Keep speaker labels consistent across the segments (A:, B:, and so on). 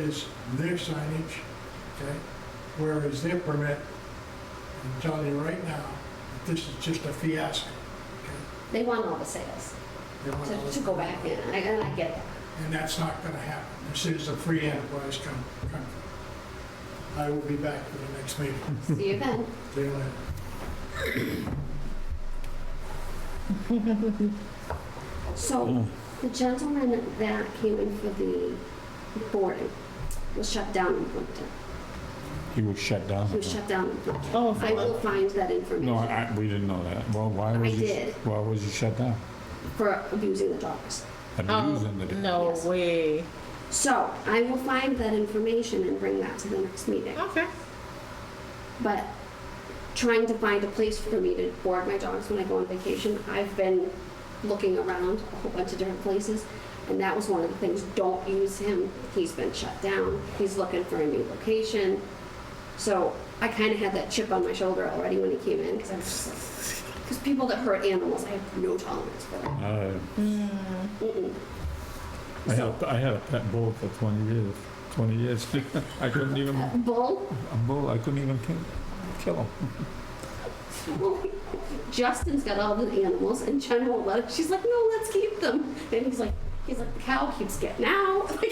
A: is their signage, okay? Whereas their permit, I'm telling you right now, that this is just a fiasco.
B: They want all the sales
A: They want all
B: to,
A: this-
B: to go back in, and I, and I get that.
A: And that's not gonna happen. This is a free enterprise com- company. I will be back for the next meeting.
B: See you then.
A: See you later. Hmm.
B: So the gentleman that came in for the boarding was shut down in Plimpton.
C: He was shut down.
B: He was shut down in Plimpton.
D: Oh,
B: I will find that
C: No,
B: information
C: I, we didn't know that. Well, why
B: I
C: was you?
B: did.
C: Why was you shut down?
B: for abusing the dogs. Oh,
C: Abusing the.
D: no
B: Yes.
D: way.
B: So I will find that information and bring that to the next meeting.
D: Okay.
B: But trying to find a place for me to board my dogs when I go on vacation, I've been looking around a whole bunch of different places. And that was one of the things, don't use him. He's been shut down. He's looking for a new location. So I kind of had that chip on my shoulder already when he came in because I was just like, because people that hurt animals, I have no tolerance for that.
C: Uh,
B: Mm. Mm-mm.
C: I had, a- I had a pet bull for 20 years. 20 years. I couldn't even
B: Uh,
C: a
B: Bull,
C: bull. I couldn't even kill, kill him.
B: Justin's got all the animals, and Jen won't let it. She's like, no, let's keep them. And he's like, he's like, the cow keeps getting out.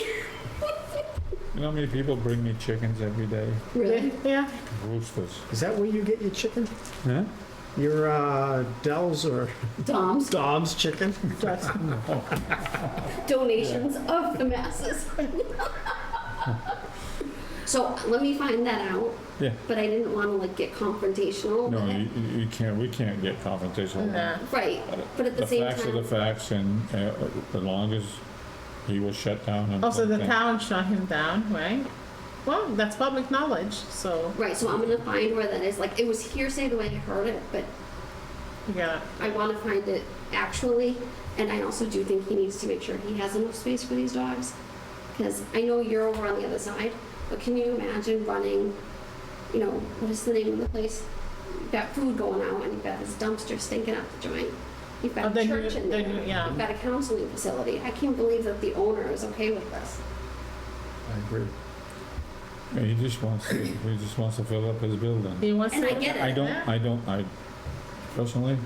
C: You know how many people bring me chickens every day?
B: really?
D: Yeah.
C: Roosters.
E: Is that where you get your chicken?
C: Huh?
E: Your uh, Dell's or
B: Dom's
E: Dom's chicken?
D: Just
B: donations of the masses. so let me find that out.
C: Yeah.
B: But I didn't want to like get confrontational.
C: No,
B: but I-
C: you, you- you can't. We can't get confrontational.
D: nah.
B: right. But at the, same
C: facts
B: time,
C: are the facts, and uh, the longest he was shut down. And
D: Also, the town shut him down, right? Well, that's public knowledge, so
B: right. So I'm gonna find where that is. Like it was hearsay the way I heard it, but
D: you gotta.
B: I want to find it actually, and I also do think he needs to make sure he has enough space for these dogs. Because I know you're over on the other side, but can you imagine running, you know, what is the name of the place? You've got food going out, and you've got this dumpster stinking out the joint. You've
D: Oh,
B: got a
D: then
B: church
D: you-
B: in there.
D: then you- yeah.
B: You've got a counseling facility. I can't believe that the owner is okay with this.
C: I agree. He just wants. To, he just wants to fill up his building.
D: He wants
B: And
D: to.
B: I get it.
C: I don't, I don't, I personally,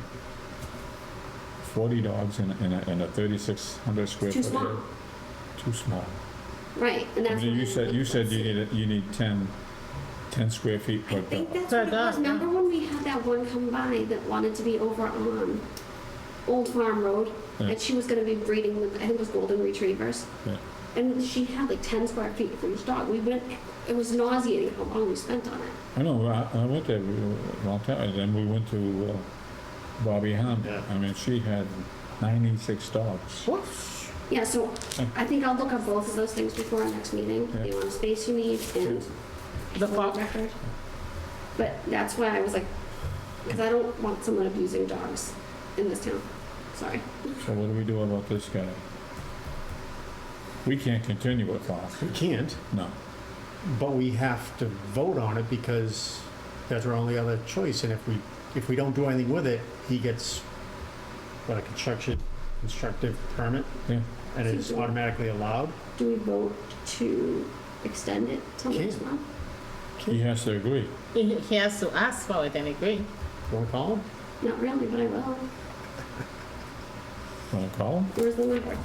C: forty dogs in, a- in a, in a thirty-six hundred square
B: Too
C: foot.
B: small.
C: area. Too small.
B: Right, and
C: I
B: that's.
C: mean,
B: what I'm
C: you said, you
B: looking
C: said
B: for.
C: you need, a- you need ten, ten square feet
B: I
C: per dog.
B: think that's
D: Per
B: what it was.
D: dog, yeah.
B: Remember when we had that one come by that wanted to be over on Old Farm Road?
C: Yeah.
B: And she was gonna be breeding, with- I think it was golden retrievers.
C: Yeah.
B: And she had like ten square feet for each dog. We went, it was nauseating how long we spent on it.
C: I know, I, I went there a long time, and then we went to uh, Bobby Hunt.
E: Yeah.
C: I mean, she had ninety-six dogs.
B: Yeah, so
C: Yeah.
B: I think I'll look up both of those things before our next meeting,
C: Yeah.
B: the amount of space you need and
D: The
B: the
D: fo-
B: record. But that's why I was like, because I don't want someone abusing dogs in this town. Sorry.
C: So what do we do about this guy? We can't continue with
E: We
C: Fox,
E: can't,
C: no.
E: but we have to vote on it because that's our only other choice. And if we, if we don't do anything with it, he gets, what, a construction, constructive permit?
C: Yeah.
E: And it's automatically allowed?
B: Do we vote to extend it till next
E: Okay.
B: month?
C: He has to agree.
D: He, he has to ask for it and agree.
E: Roll call?
B: Not really, but I will.
C: Want to call him?
B: Where's the number?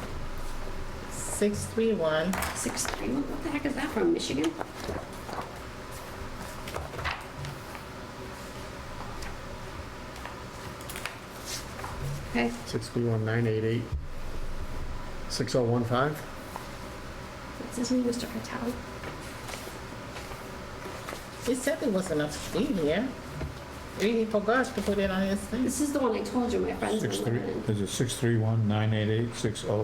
D: Six three one.
B: Six three. What the heck is that from? Michigan? Okay.
E: 631-988. 6015?
B: What's his name, Mr. Patel?
D: He said there was enough to be here. He forgot to put it on his thing.
B: This is the one I told you my friends
C: Six
B: were
C: three,
B: living in.
C: is it six three one nine eight eight six oh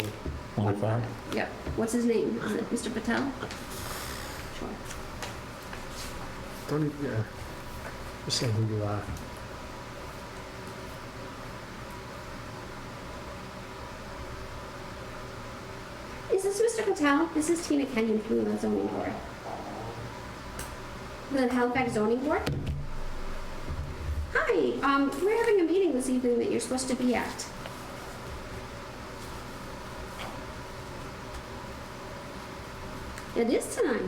C: one five?
B: Yep. What's his name? Is it Mr. Patel? Sure.
E: Don't, even- yeah. Just say who you are.
B: Is this Mr. Patel? This is Tina Kenyon from the zoning board. The Halifax zoning board? Hi, um, we're having a meeting this evening that you're supposed to be at. It is tonight.